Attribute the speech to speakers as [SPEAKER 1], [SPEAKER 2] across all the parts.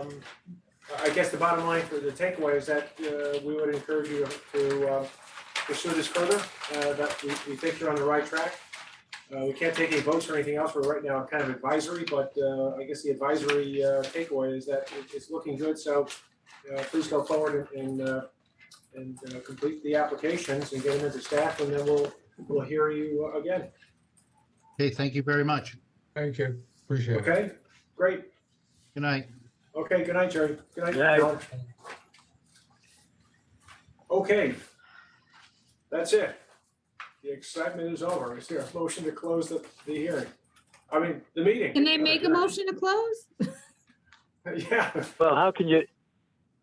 [SPEAKER 1] Um, I guess the bottom line for the takeaway is that uh, we would encourage you to uh, pursue this further, uh, that we we think you're on the right track. Uh, We can't take any votes or anything else, we're right now kind of advisory, but uh, I guess the advisory uh, takeaway is that it- it's looking good, so uh, please go forward and, uh, and uh, complete the applications and get them into staff, and then we'll, we'll hear you again,
[SPEAKER 2] Okay, thank you very much.
[SPEAKER 3] Thank you. Appreciate it.
[SPEAKER 1] okay? Great,
[SPEAKER 2] Good night.
[SPEAKER 1] okay, good night, Jerry, good night.
[SPEAKER 4] Good night.
[SPEAKER 1] John. Okay. That's it. The excitement is over. Is there a motion to close the, the hearing? I mean, the meeting.
[SPEAKER 5] Can they make a motion to close?
[SPEAKER 1] Yeah,
[SPEAKER 4] Well, how can you,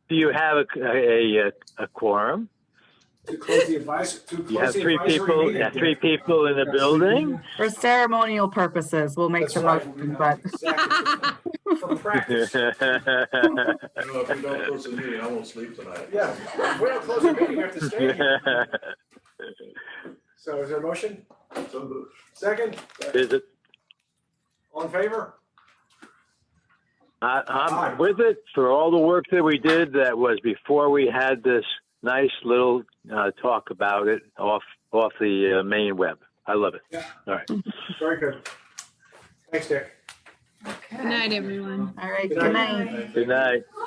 [SPEAKER 4] do you have a, a, a quorum?
[SPEAKER 1] to close the advice, to
[SPEAKER 4] You have
[SPEAKER 1] close the
[SPEAKER 4] three
[SPEAKER 1] advisory
[SPEAKER 4] people,
[SPEAKER 1] meeting.
[SPEAKER 4] yeah, three people in the building?
[SPEAKER 6] For ceremonial purposes, we'll make
[SPEAKER 1] That's
[SPEAKER 6] the
[SPEAKER 1] right.
[SPEAKER 6] motion, but
[SPEAKER 1] Exactly. For practice,
[SPEAKER 7] You know, if we don't close the meeting, I won't sleep tonight.
[SPEAKER 1] yeah. If we don't close the meeting, we have to stay here. So is there a motion?
[SPEAKER 7] So moved.
[SPEAKER 1] Second?
[SPEAKER 4] Is it,
[SPEAKER 1] All in favor?
[SPEAKER 4] I, I'm with it for all the work that we did that was before we had this nice little, uh, talk about it off, off the uh, main web. I love it.
[SPEAKER 1] Very good. Thanks, Dick.
[SPEAKER 5] Good night, everyone.
[SPEAKER 6] all right,
[SPEAKER 1] Good
[SPEAKER 6] good
[SPEAKER 1] night.
[SPEAKER 6] night.
[SPEAKER 4] Good night.